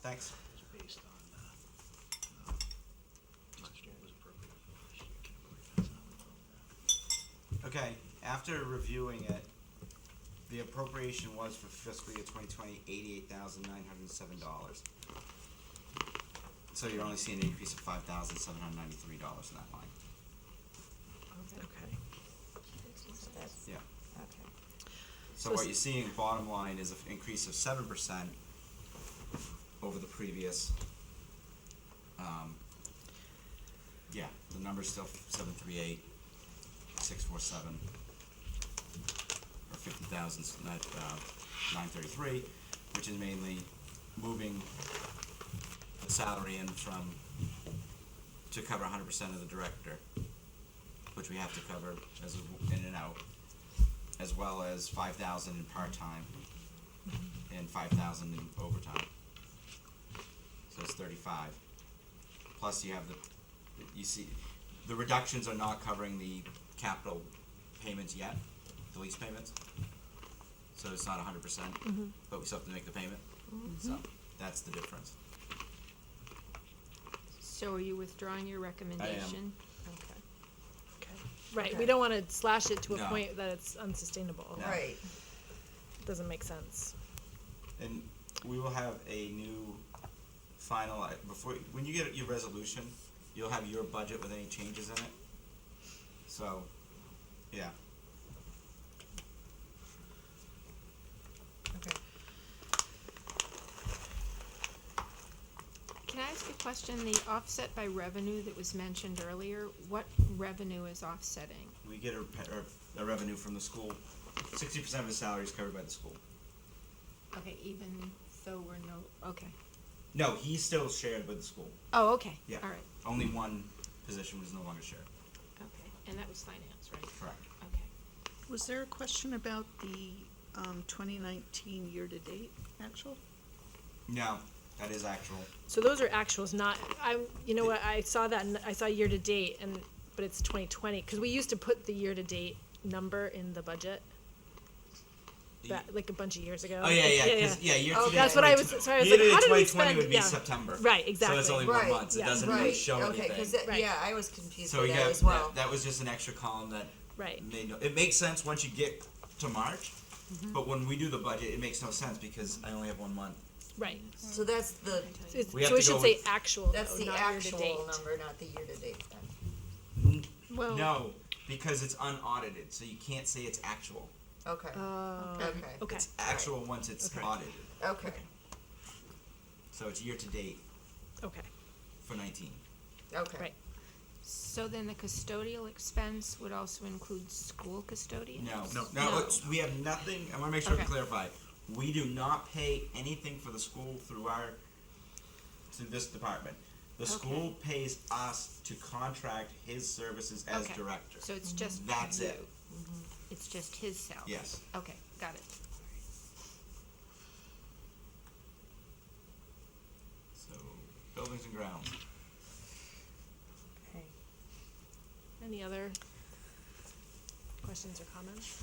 Thanks. based on, uh, uh, last year was appropriate for last year, can't believe that's how we vote that. Okay, after reviewing it, the appropriation was for fiscal year twenty twenty, eighty-eight thousand nine hundred and seven dollars. So you're only seeing an increase of five thousand seven hundred ninety-three dollars in that line, Okay. So that's, yeah. okay. So So what s- you're seeing, bottom line, is an increase of seven percent over the previous, um, yeah, the number's still seven three eight, six four seven, or fifty thousand, nine, uh, nine thirty-three, which is mainly moving the salary in from, to cover hundred percent of the director, which we have to cover as a- in and out as well as five thousand in part-time and five thousand in overtime. So it's thirty-five. Plus you have the, you see, the reductions are not covering the capital payments yet, the lease payments. So it's not hundred percent, but we still have to make the payment, so that's the difference. So are you withdrawing your recommendation? Okay. Okay. Right, we Okay. don't wanna slash it to a No. point that it's unsustainable. No. Right, Doesn't make sense. And we will have a new final, uh, before, when you get your resolution, you'll have your budget with any changes in it. So, yeah, okay. Can I ask a question? The offset by revenue that was mentioned earlier, what revenue is offsetting? we get a, pe- or a revenue from the school, sixty percent of his salary is covered by the school. Okay, even though we're no, okay. No, he's still shared with the school, Oh, okay. yeah. All right, Only one position was no longer shared, okay. And that was finance, right? correct. Okay. Was there a question about the um, 2019 year-to-date actual? No, that is actual, So those are actuals, not, I, you know what, I saw that, and I saw year-to-date and, but it's twenty twenty, cause we used to put the year-to-date number in the budget. The- That, like a bunch of years ago. oh, yeah, yeah, 'cause- yeah, year to Oh, date that's what I was- 2020 sorry, I was year like, to date how did we 2020 spend- would be yeah. September. Right, So it's exactly. only one Right, month, so it yeah, doesn't really Right, show anything. okay, cause that, Right. yeah, I was confused So with we that got as well. that, that was just an extra column that Right, made no. It makes sense once you get to March, but when we do the budget, it makes no sense because I only have one month. right. So that's the, So it's- We have so we to go should say with- actual, that's though, the Oh, not actual year-to-date. number, not the year-to-date then. Well, No, because it's unaudited, so you can't say it's actual. Okay, uh, Oh, Okay. okay, It's actual once it's Okay. audited. okay, So it's year to date okay, for 19. okay. right. so then the custodial expense would also include school custodian? No, no, No. it's- we have nothing. I want to make sure to Okay. clarify. We do not pay anything for the school through our through this department. The school pays us to contract his services as Okay. director. Mm-hmm. So it's just you? Mm-hmm. That's it. It's just his salary? Yes. Okay, got it. So buildings and grounds. Okay. Any other questions or comments?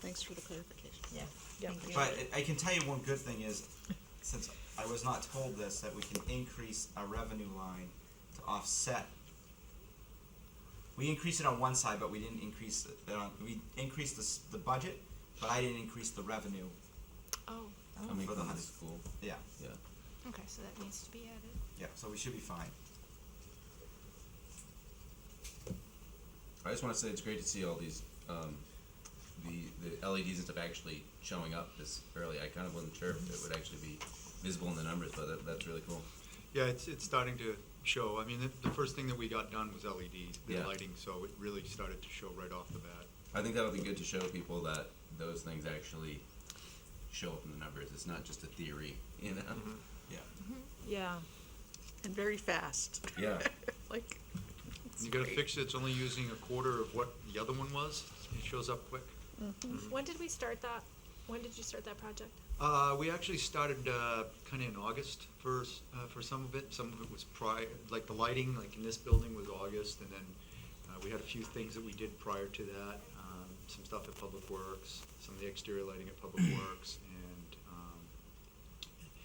Thanks for the clarification. Yeah, Yeah. thank you. But I I can tell you one good thing is, since I was not told this, that we can increase our revenue line to offset. We increased it on one side, but we didn't increase it on, we increased the, s- the budget, but I didn't increase the revenue Oh, Oh, for the high school. Yeah, Okay, so that needs to be added. yeah, so we should be fine. I just want to say it's great to see all these um, the the LEDs and stuff actually showing up this early. I kind of wasn't sure if it would actually be visible in the numbers, but that, that's really cool. Yeah, it's, it's starting to show. I mean, the, the first thing that we got done was LED, the Yeah. lighting, so it really started to show right off the bat. I think that'll be good to show people that those things actually show up in the numbers. It's not just a theory, you know. yeah, And very fast, Yeah, like. And You got a fixture that's only using a quarter of what the other one was. It shows up quick. when did we start that, when did you start that project? Uh, we actually started, uh, kinda in August for, s- uh, for some of it. Some of it was prior, like the lighting, like in this building was August, and then, uh, we had a few things that we did prior to that. Um, some stuff at Public Works, um, some of the exterior lighting at Public Works,